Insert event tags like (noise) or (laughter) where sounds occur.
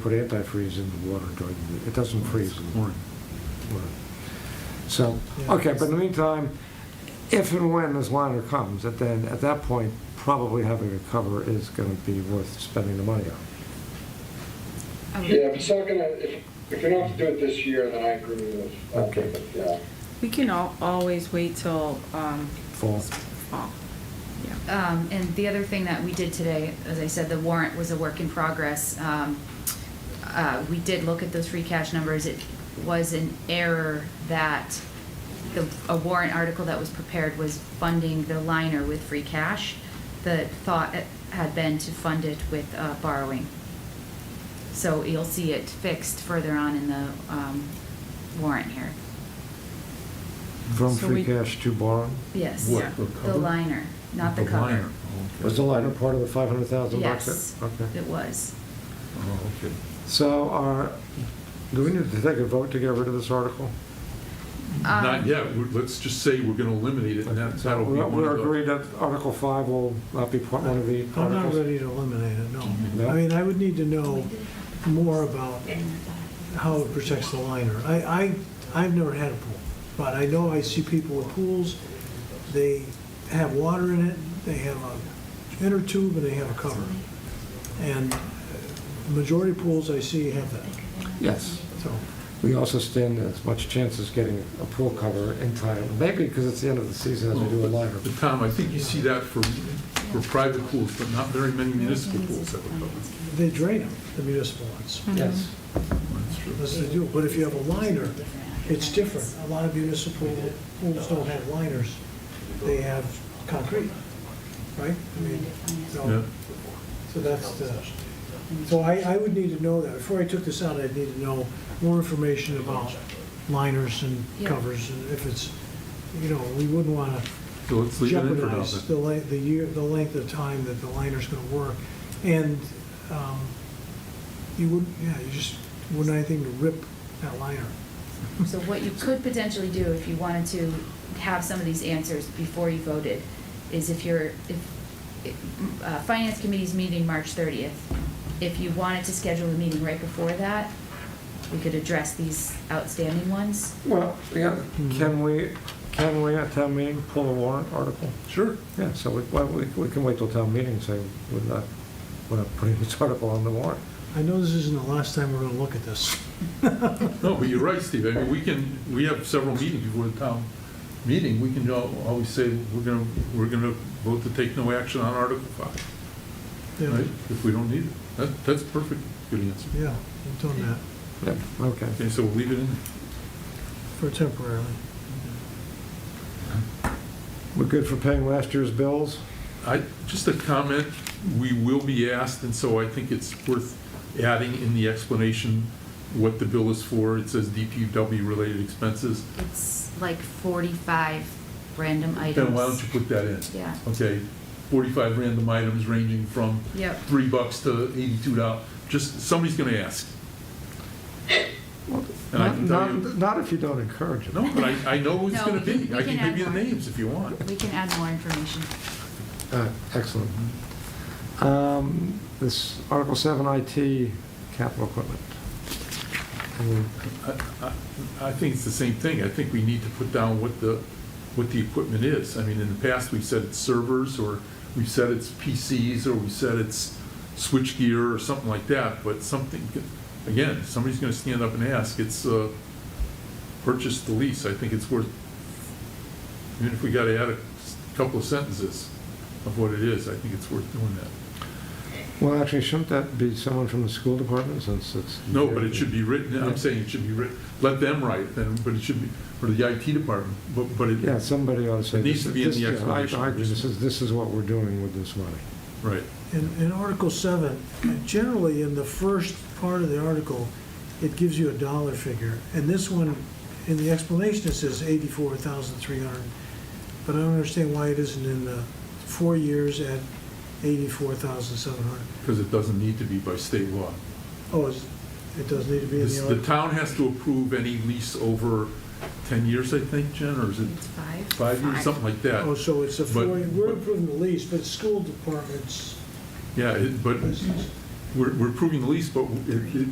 Put antifreeze in the water during the, it doesn't freeze in the morning. So, Yeah. okay, but in the meantime, if and when this liner comes, that then, at that point, probably having a cover is gonna be worth spending the money on. I would Yeah, if think. it's not gonna, if, if you're not gonna do it this year, then I agree with, I Okay. think, yeah. We can al- always wait till, um, Fall. fall. Yeah. Um, and the other thing that we did today, as I said, the warrant was a work in progress. Um, uh, we did look at those free cash numbers. It was an error that the, a warrant article that was prepared was funding the liner with free cash. The thought had been to fund it with, uh, borrowing. So you'll see it fixed further on in the, um, warrant here. From So free we- cash to borrow? Yes. What, the The cover? liner, not the The cover. liner, Oh, okay. Was the liner part of the five hundred thousand bucks? Yes. Okay. It was. Oh, okay. So are, do we need to take a vote to get rid of this article? Um, Not yet, We- let's just say we're gonna eliminate it, and that- So that'll be we- one We're of agreed the... that Article five will not be part- one of the I'm articles? not ready to eliminate it, No? no. I mean, I would need to know more about how it protects the liner. I, I, I've never had a pool, but I know I see people with pools, they have water in it, they have a inner tube and they have a cover. And the majority of pools I see have that, Yes. so. We also stand as much chance as getting a pool cover in time, maybe because it's the end of the season as we do a liner. But Tom, I think you see that for, for private pools, but not very many municipal pools have a cover. They drain them, the municipal ones, Yes. That's true. that's the deal. But if you have a liner, it's different. A lot of municipal pools don't have liners, they have concrete, right? I mean, Yeah. so, so that's the, so I, I would need to know that. Before I took this out, I'd need to know more information about liners and Yeah. covers, and if it's, you know, we wouldn't want to So let's leave it in for now, jeopardize the then. la the year, the length of time that the liner's gonna work. And, um, you wouldn't, yeah, you just wouldn't have anything to rip that liner. So what you could potentially do if you wanted to have some of these answers before you voted is if you're, if, uh, Finance Committee's meeting March thirtieth, if you wanted to schedule a meeting right before that, we could address these outstanding ones. Well, yeah, can we, can we at town meeting pull the warrant article? Sure. Yeah, so we, well, we, we can wait till town meeting and say, we're not, we're not putting this (laughs) article on the warrant. I know this isn't the last time we're gonna look at this. No, but you're right, Steve, I mean, we can, we have several meetings before the town meeting, we can al- always say, we're gonna, we're gonna vote to take no action on Article 5, Yeah, right? If we don't need it, that, that's perfect, good answer. Yeah, we've done that Yeah, okay. Okay, so we'll leave it in there. for temporarily. We're good for paying last year's bills? I, just a comment, we will be asked, and so I think it's worth adding in the explanation what the bill is for. It says DPW-related expenses. It's like forty-five random items. Then why don't you put that in? Yeah, Okay, 45 random items ranging from yep. three bucks to 82 dollars. Just, somebody's gonna ask. And I Not, can tell not you, not if you don't encourage it. no, but I, I know who it's No, gonna we can- be. we I can can add give you the more. names if you want. We can add more information. Uh, Excellent. Um, This Article 7 IT capital equipment. Any I, I- I think it's the same thing. I think we need to put down what the, what the equipment is. I mean, in the past, we've said it's servers, or we've said it's PCs, or we said it's switchgear or something like that, but something, again, somebody's gonna stand up and ask, it's, uh, purchase the lease. I think it's worth, even if we gotta add a couple of sentences of what it is, I think it's worth doing that. Well, actually, shouldn't that be someone from the school department since it's? No, but it should be written, I'm saying it should be written, let them write it then, but it should be, or the IT department, but, but it, Yeah, somebody ought to say. It needs to be in this- the yeah, I- explanation. I agree. This is, this is what we're doing with this money. right. In, in Article 7, generally in the first part of the article, it gives you a dollar figure. And this one, in the explanation, it says 84,300. But I don't understand why it isn't in the four years at 84,700. Because it doesn't need to be by state law. Oh, it's- it does need to be in This- the The article. town has to approve any lease over 10 years, I think, Jen, or is it It's five. five years, something like Oh, that? so it's a But- four, we're approving the lease, but school departments, Yeah, it- but business. we're, we're approving the lease, but it, it,